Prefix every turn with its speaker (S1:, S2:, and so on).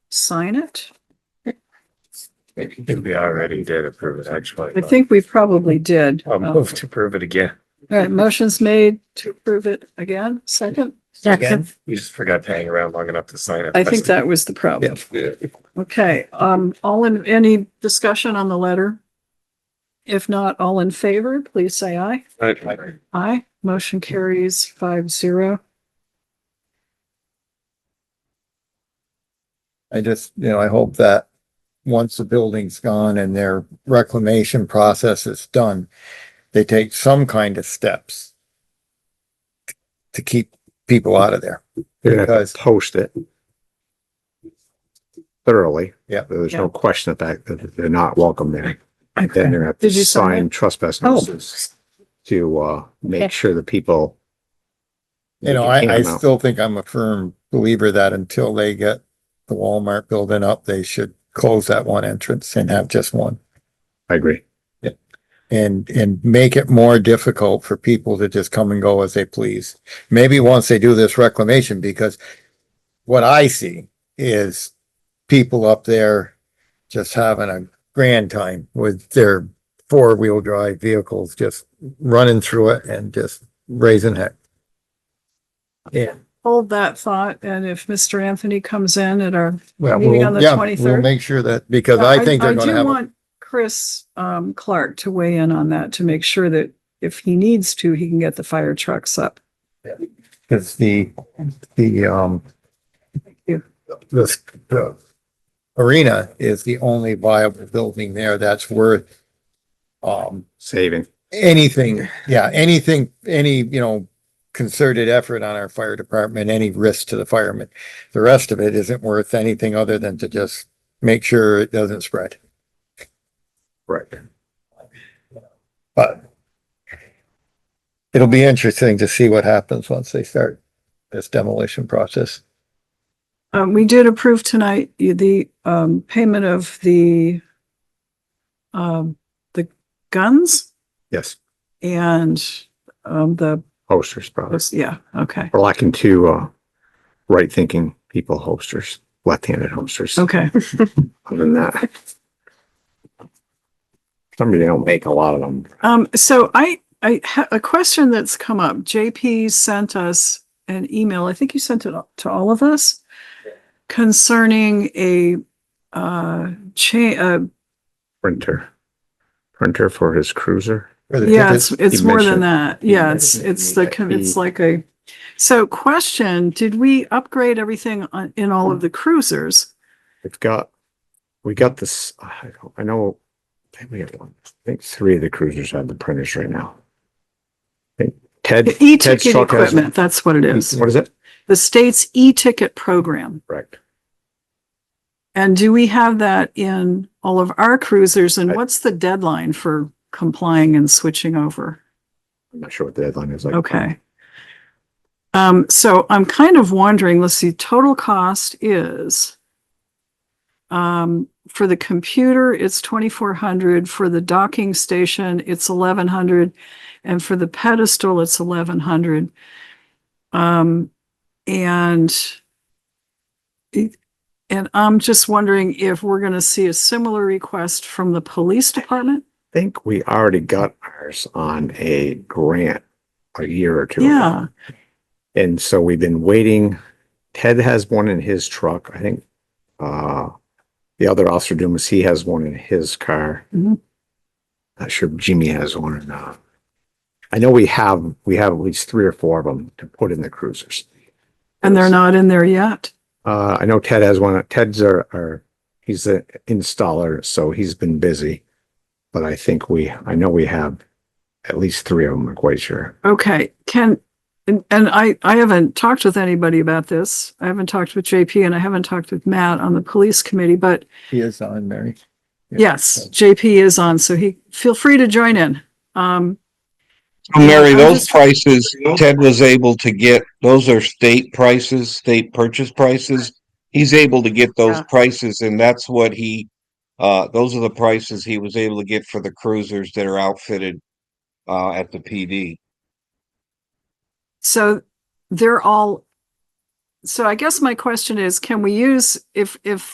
S1: sign it?
S2: I think we already did approve it, actually.
S1: I
S3: Uh,
S1: think oh. we probably did.
S2: I'll
S1: All
S2: move to approve it again.
S1: right, motion's made to approve it again, second.
S2: Again, you just forgot to hang around long enough to sign it.
S1: I think that was the problem.
S2: Yeah.
S1: Okay, um, all in, any discussion on the letter? If not, all in favor, please say aye.
S2: Okay.
S1: Aye, motion carries five zero.
S3: I just, you know, I hope that once the building's gone and their reclamation process is done, they take some kind of steps to keep people out of there.
S4: You're gonna have
S3: Because-
S4: to post it thoroughly.
S3: Yeah.
S4: There's
S1: Yeah.
S4: no question that, that they're not welcome there. Then
S1: Okay,
S4: they're gonna have
S1: Did you
S4: to
S1: sign
S4: sign trespass
S1: Oh.
S4: notices to, uh, make sure the people.
S3: You know, I, I still think I'm a firm believer that until they get the Walmart building up, they should close that one entrance and have just one.
S4: I agree.
S3: and and make it more difficult for people to just come and go as they please. Maybe once they do this reclamation, because what I see is people up there just having a grand time with their four-wheel drive vehicles, just running through it and just raising heck. Yeah.
S1: hold that thought, and if Mr. Anthony comes in at our,
S3: Well,
S1: Meeting on the
S3: we'll, yeah,
S1: 23rd?
S3: we'll make sure that, because I think they're gonna
S1: do
S3: have, a-
S1: want Chris, um, Clark to weigh in on that to make sure that if he needs to, he can get the fire trucks up.
S3: because the, the, um,
S1: you.
S3: this, the arena is the only viable building there that's worth, um,
S4: Saving.
S3: anything, yeah, anything, any, you know, concerted effort on our fire department, any risk to the firemen. The rest of it isn't worth anything other than to just make sure it doesn't spread.
S4: Right.
S3: But it'll be interesting to see what happens once they start this demolition process.
S1: Um, we did approve tonight the, um, payment of the, um, the guns
S4: Yes.
S1: and, um, the,
S4: Posters, probably.
S1: yeah, okay,
S4: We're lacking two, uh, right-thinking people, hosters, left-handed hosters.
S1: okay.
S4: Other than that. Somebody don't make a lot of them.
S1: Um, so I, I ha a question that's come up. JP sent us an email. I think you sent it to all of us concerning a, uh, cha- uh,
S4: Printer. Printer for his cruiser.
S3: For the
S1: yeah,
S3: tickets.
S1: it's, it's
S4: you
S1: more than
S4: mentioned.
S1: that.
S4: You
S1: Yeah, it's,
S4: mentioned
S1: it's the, E
S4: that
S1: com- it's
S4: the-
S1: like a, so question, did we upgrade everything on, in all of the cruisers?
S4: We've got, we got this, I don't- I know, I think we have one, I think three of the cruisers have the printers right now. I think Ted,
S1: The
S4: Ted's
S1: e-ticket
S4: truck has,
S1: equipment, that's what it is.
S4: what is it?
S1: The state's e-ticket program.
S4: Correct.
S1: And do we have that in all of our cruisers? And
S4: I-
S1: what's the deadline for complying and switching over?
S4: I'm not sure what the deadline is. I-
S1: Okay. Um, so I'm kind of wondering, let's see, total cost is um, for the computer, it's twenty-four hundred, for the docking station, it's eleven hundred, and for the pedestal, it's eleven hundred. Um, and it- and I'm just wondering if we're gonna see a similar request from the police department?
S4: I think we already got ours on a grant a year or two. ago.
S1: Yeah,
S4: And so we've been waiting. Ted has one in his truck, I think. Uh, the other officer Dumas, he has one in his car.
S1: Mhm.
S4: Not sure if Jimmy has one or not. I know we have, we have at least three or four of them to put in the cruisers.
S1: and they're not in there yet.
S4: Uh, I know Ted has one. Ted's are, are, he's the installer, so he's been busy. But I think we, I know we have at least three of them, I'm quite sure.
S1: Okay, can, and, and I, I haven't talked with anybody about this. I haven't talked with JP and I haven't talked with Matt on the police committee, but
S3: He is uh, on, Mary.
S1: yes, JP is on, so he, feel free to join in. Um,
S5: So Mary,
S1: I'm
S5: those
S1: just-
S5: prices Ted was able to get, those are state prices, state purchase prices. He's able to get those
S1: Yeah.
S5: prices and that's what he, uh, those are the prices he was able to get for the cruisers that are outfitted uh, at the PD.
S1: so they're all, so I guess my question is, can we use, if, if